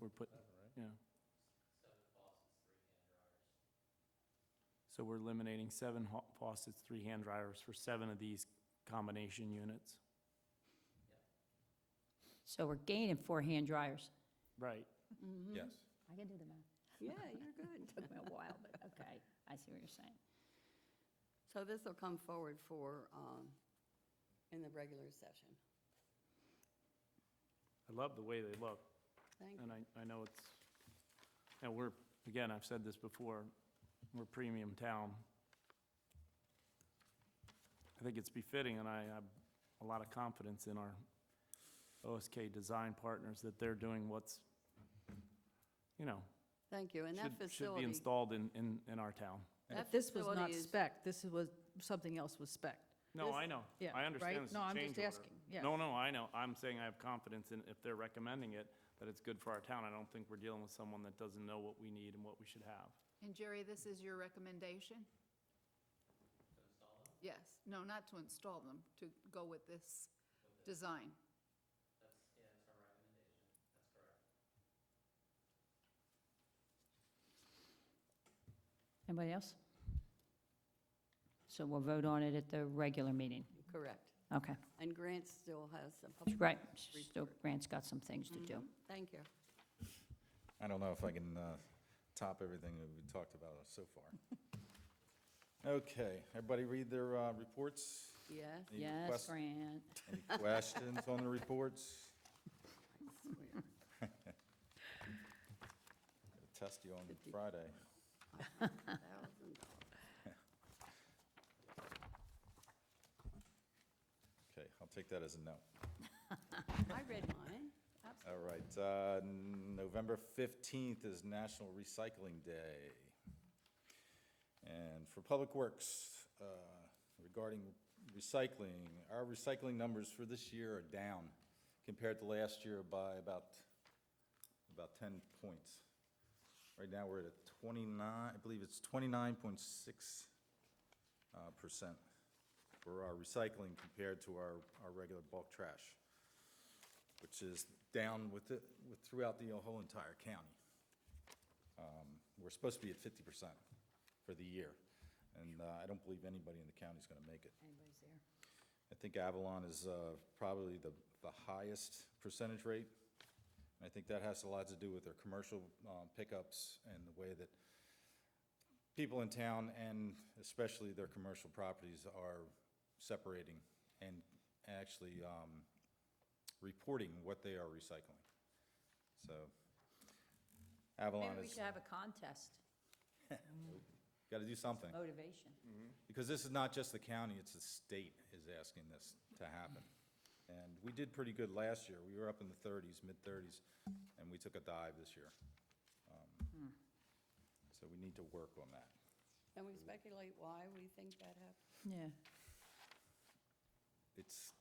we're putting, yeah. So we're eliminating seven ho- faucets, three hand dryers for seven of these combination units. So we're gaining four hand dryers. Right. Mm-hmm. Yes. I can do the math. Yeah, you're good. Took me a while, but okay, I see what you're saying. So this will come forward for, um, in the regular session. I love the way they look, Thank you. and I, I know it's, and we're, again, I've said this before, we're premium town. I think it's befitting, and I have a lot of confidence in our OSK design partners that they're doing what's, you know, Thank you. And that should, should be facility, installed in, in, in our town. that This was not facility is, spec, this was, something else was spec. No, This- I know. Yeah, I understand right? this is No, a I'm change just order. asking, yeah. No, no, I know. I'm saying I have confidence in, if they're recommending it, that it's good for our town. I don't think we're dealing with someone that doesn't know what we need and what we should have. And Jerry, this is your recommendation? Yes, no, not to install them, to go with this design. Anybody else? So we'll vote on it at the regular meeting. correct. Okay, And Grant still has some public. right. Still, report. Grant's got some things to do. Mm-hmm. Mhm. Thank you. I don't know if I can uh, top everything that we've talked about so far. Okay, everybody read their uh, reports? Yes, Any Yes, requests- Grant. Any questions on the reports? I swear. Gonna Test you on Friday. $1,000. Okay, I'll take that as a no. I read mine. All right, uh, November 15th is National Recycling Day. And for Public Works, uh, regarding recycling, our recycling numbers for this year are down compared to last year by about, about 10 points. Right now, we're at a 29, I believe it's 29.6 uh, percent for our recycling compared to our, our regular bulk trash which is down with it, with throughout the whole entire county. Um, We're supposed to be at fifty percent for the year, and uh, I don't believe anybody in the county's gonna make it. Anybody's there? I think Avalon is uh, probably the, the highest percentage rate. And I think that has a lot to do with their commercial uh, pickups and the way that people in town and especially their commercial properties are separating and actually um, reporting what they are recycling. So Avalon Maybe we is, should have a contest, got to do something. motivation. Because this is not just the county, it's the state is asking this to happen. And we did pretty good last year. We were up in the thirties, mid-thirties, and we took a dive this year. Um, So we need to work on that. Can we speculate why we think that happened? Yeah. It's,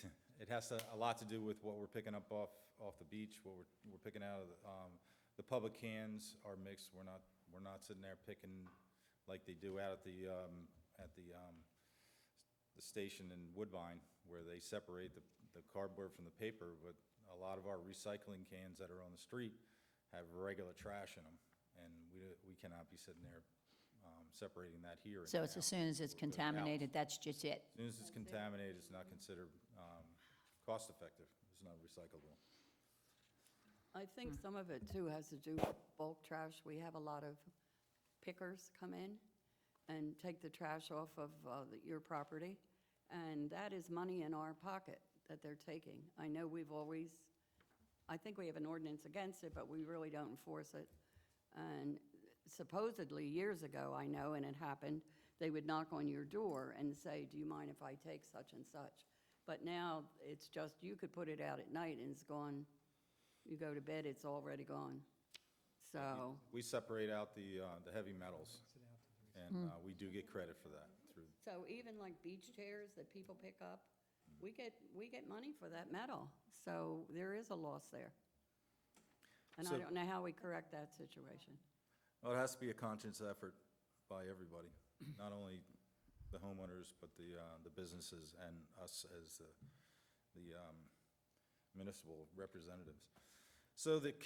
it has to- a lot to do with what we're picking up off, off the beach, what we're, we're picking out of, the, um, the public cans are mixed. We're not, we're not sitting there picking like they do out at the, um, at the, um, the station in Woodbine where they separate the, the cardboard from the paper, but a lot of our recycling cans that are on the street have regular trash in them, and we, we cannot be sitting there, um, separating that here. and So it's now. as soon as it's We'll put it out. contaminated, that's just it. As soon as it's contaminated, it's not considered, um, cost-effective, it's not recyclable. I think Hmm. some of it too has to do with bulk trash. We have a lot of pickers come in and take the trash off of uh, the- your property, and that is money in our pocket that they're taking. I know we've always, I think we have an ordinance against it, but we really don't enforce it. And supposedly, years ago, I know, and it happened, they would knock on your door and say, do you mind if I take such and such? But now, it's just, you could put it out at night and it's gone, you go to bed, it's already gone. So, We separate out the, uh, the heavy metals, and, uh, we do get credit for that through, so even like beach chairs that people pick up, we get, we get money for that metal, so there is a loss there. And I So- don't know how we correct that situation. well, it has to be a conscious effort by everybody, not only the homeowners, but the, uh, the businesses and us as the, the, um, municipal representatives. So the